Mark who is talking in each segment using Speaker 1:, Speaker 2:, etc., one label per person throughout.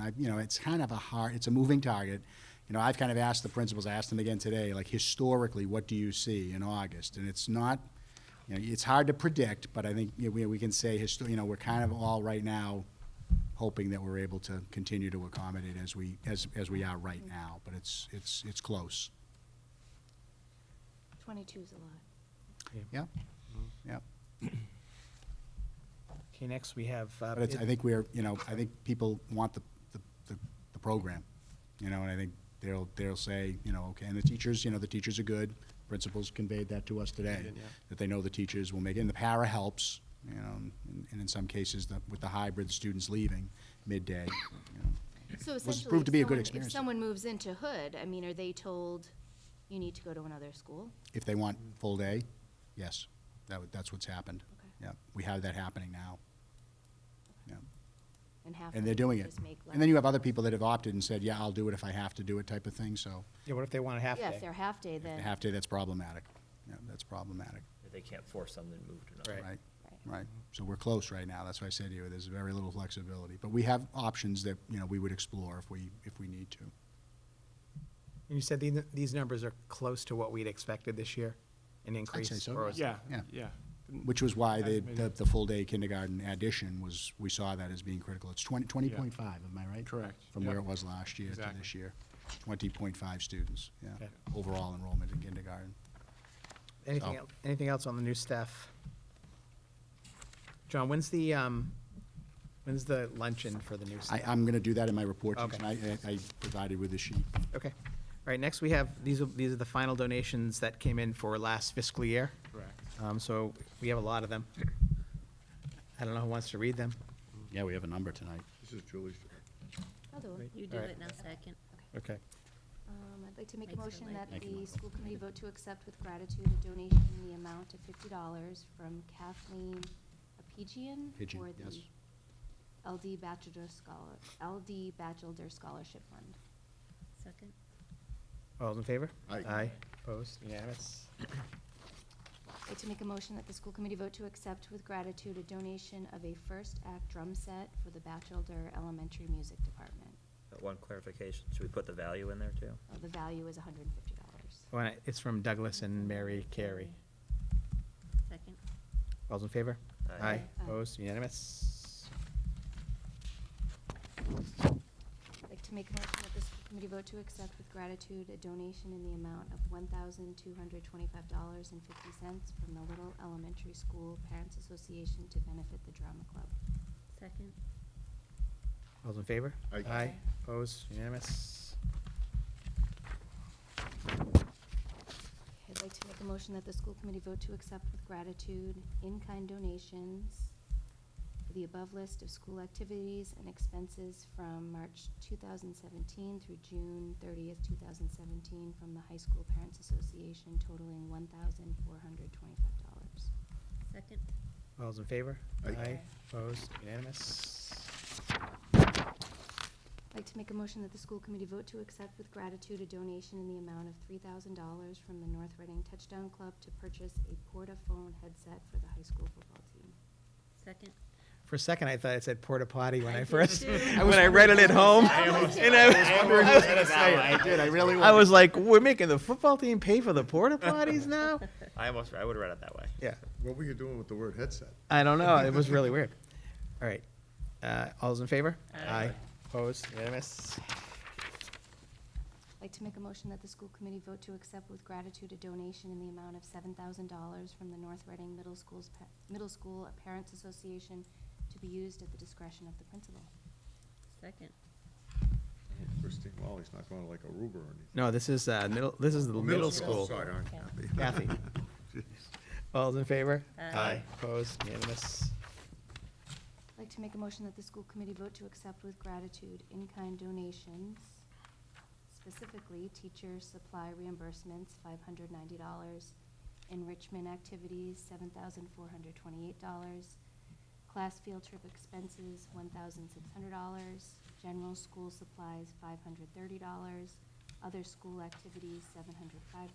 Speaker 1: I, you know, it's kind of a hard, it's a moving target. You know, I've kind of asked the principals, I asked them again today, like historically, what do you see in August? And it's not, you know, it's hard to predict, but I think you know, we, we can say, histo- you know, we're kind of all right now hoping that we're able to continue to accommodate as we, as, as we are right now, but it's, it's, it's close.
Speaker 2: Twenty-two is a lot.
Speaker 1: Yeah, yeah.
Speaker 3: Okay, next we have, uh,
Speaker 1: But it's, I
Speaker 3: bid-
Speaker 1: think we're, you know, I think people want the, the, the- the program, you know, and I think they'll, they'll say, you know, okay, and the teachers, you know, the teachers are good. Principals conveyed that to us today,
Speaker 4: yeah.
Speaker 1: that they know the teachers will make it, and the para helps, you know, and- and in some cases, the- with the hybrid students leaving midday, you know.
Speaker 2: So
Speaker 1: Was
Speaker 2: essentially,
Speaker 1: proved to
Speaker 2: if
Speaker 1: be a good
Speaker 2: someone-
Speaker 1: experience.
Speaker 2: If someone moves into Hood, I mean, are they told, you need to go to another school?
Speaker 1: If they want full day, yes, that, would- that's what's happened.
Speaker 2: Mm-hmm. Okay.
Speaker 1: Yeah, we have that happening now. Yeah.
Speaker 2: And half
Speaker 1: And
Speaker 2: of
Speaker 1: they're
Speaker 2: them
Speaker 1: doing it.
Speaker 2: just make less?
Speaker 1: And then you have other people that have opted and said, yeah, I'll do it if I have to do it type of thing, so.
Speaker 3: yeah, what if they want a half
Speaker 2: Yeah, if they're
Speaker 3: day?
Speaker 2: half-day,
Speaker 1: If
Speaker 2: then.
Speaker 1: they have to, that's problematic. Yeah, that's problematic,
Speaker 5: They can't force them to move to another.
Speaker 3: Right.
Speaker 1: right?
Speaker 2: Right.
Speaker 1: Right. So we're close right now. That's why I said to you, there's very little flexibility. But we have options that, you know, we would explore if we, if we need to.
Speaker 3: And you said these, these numbers are close to what we'd expected this year, an increase?
Speaker 1: so,
Speaker 3: or is-
Speaker 4: Yeah,
Speaker 1: Yeah.
Speaker 4: yeah.
Speaker 1: Which was why the,
Speaker 4: Estimated.
Speaker 1: the, the full-day kindergarten addition was, we saw that as being critical. It's twenty, twenty
Speaker 4: Yeah.
Speaker 1: point five, am I right?
Speaker 4: Correct.
Speaker 1: From where
Speaker 4: Yeah.
Speaker 1: it was last year to
Speaker 4: Exactly.
Speaker 1: this year. Twenty point five students, yeah,
Speaker 3: Okay.
Speaker 1: overall enrollment in kindergarten.
Speaker 3: Anything,
Speaker 1: So-
Speaker 3: el- anything else on the new staff? John, when's the, um, when's the luncheon for the new
Speaker 1: I,
Speaker 3: staff?
Speaker 1: I'm gonna do that in my report to you
Speaker 3: Okay.
Speaker 1: tonight. I, I provided with the sheet.
Speaker 3: Okay. All right, next we have, these are, these are the final donations that came in for last fiscal year.
Speaker 4: Correct.
Speaker 3: Um, so we have a lot of them. I don't know who wants to read them.
Speaker 1: Yeah, we have a number tonight.
Speaker 4: This is Julie's.
Speaker 2: I'll do it.
Speaker 6: You do
Speaker 3: Alright.
Speaker 6: it now, second.
Speaker 3: Okay.
Speaker 2: Um, I'd like to make a
Speaker 6: Makes it
Speaker 2: motion
Speaker 6: light.
Speaker 2: that
Speaker 1: Thank you,
Speaker 2: the
Speaker 1: Michael.
Speaker 2: school committee vote to accept with gratitude a donation in the amount of fifty dollars from Kathleen Apigian
Speaker 1: Pigeon,
Speaker 2: for the
Speaker 1: yes.
Speaker 2: LD Bachelor Scholar, LD Bachelor Scholarship Fund.
Speaker 6: Second.
Speaker 3: All those in favor?
Speaker 4: Aye.
Speaker 3: Aye. Opposed? Unanimous?
Speaker 2: I'd like to make a motion that the school committee vote to accept with gratitude a donation of a first act drum set for the Bachelor Elementary Music Department.
Speaker 5: But One clarification, should we put the value in there too?
Speaker 2: Uh, The value is hundred and fifty dollars.
Speaker 3: Well, It's from Douglas and Mary Carey.
Speaker 6: Second.
Speaker 3: All those in favor?
Speaker 5: Aye.
Speaker 3: Aye.
Speaker 2: Aye.
Speaker 3: Opposed? Unanimous?
Speaker 2: I'd like to make a motion that the school committee vote to accept with gratitude a donation in the amount of one thousand two hundred twenty-five dollars and fifty cents from the Little Elementary School Parents Association to benefit the drama club.
Speaker 6: Second.
Speaker 3: All those in favor?
Speaker 4: Aye.
Speaker 3: Aye. Opposed? Unanimous?
Speaker 2: I'd like to make a motion that the school committee vote to accept with gratitude in-kind donations for the above list of school activities and expenses from March two thousand seventeen through June thirtieth, two thousand seventeen from the High School Parents Association totaling one thousand four hundred twenty-five dollars.
Speaker 6: Second.
Speaker 3: All those in favor?
Speaker 4: Aye.
Speaker 3: Opposed? Unanimous?
Speaker 2: I'd like to make a motion that the school committee vote to accept with gratitude a donation in the amount of three thousand dollars from the North Reading Touchdown Club to purchase a portaphone headset for the high school football team.
Speaker 6: Second.
Speaker 3: For a second, I thought it said porta potty when
Speaker 6: I
Speaker 3: I
Speaker 6: did
Speaker 3: first,
Speaker 6: too.
Speaker 3: when I read it at home. And I was-
Speaker 5: I did, I really
Speaker 3: I was like, we're making the football team pay for the porta potties now?
Speaker 5: I almost, I would've read it that way.
Speaker 3: Yeah.
Speaker 7: What were you doing with the word headset?
Speaker 3: I don't know. It was really weird. All right. Uh, all those in favor?
Speaker 6: Aye.
Speaker 3: Opposed? Unanimous?
Speaker 2: I'd like to make a motion that the school committee vote to accept with gratitude a donation in the amount of seven thousand dollars from the North Reading Middle School's, pa- Middle School Parents Association to be used at the discretion of the principal.
Speaker 6: Second.
Speaker 7: Christine Wally's not going to like Aruba or anything.
Speaker 3: No, this is, uh, middle, this is the middle school.
Speaker 7: Sorry, aren't
Speaker 6: Yeah.
Speaker 7: you?
Speaker 3: Kathy. All those in favor?
Speaker 6: Aye.
Speaker 3: Opposed? Unanimous?
Speaker 2: I'd like to make a motion that the school committee vote to accept with gratitude in-kind donations, specifically teacher supply reimbursements, five hundred ninety dollars, enrichment activities, seven thousand four hundred twenty-eight dollars, class field trip expenses, one thousand six hundred dollars, general school supplies, five hundred thirty dollars, other school activities, seven hundred five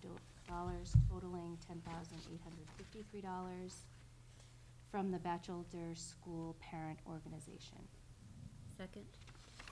Speaker 2: dollars, totaling ten thousand eight hundred fifty-three dollars, from the Bachelor School Parent Organization.
Speaker 6: Second.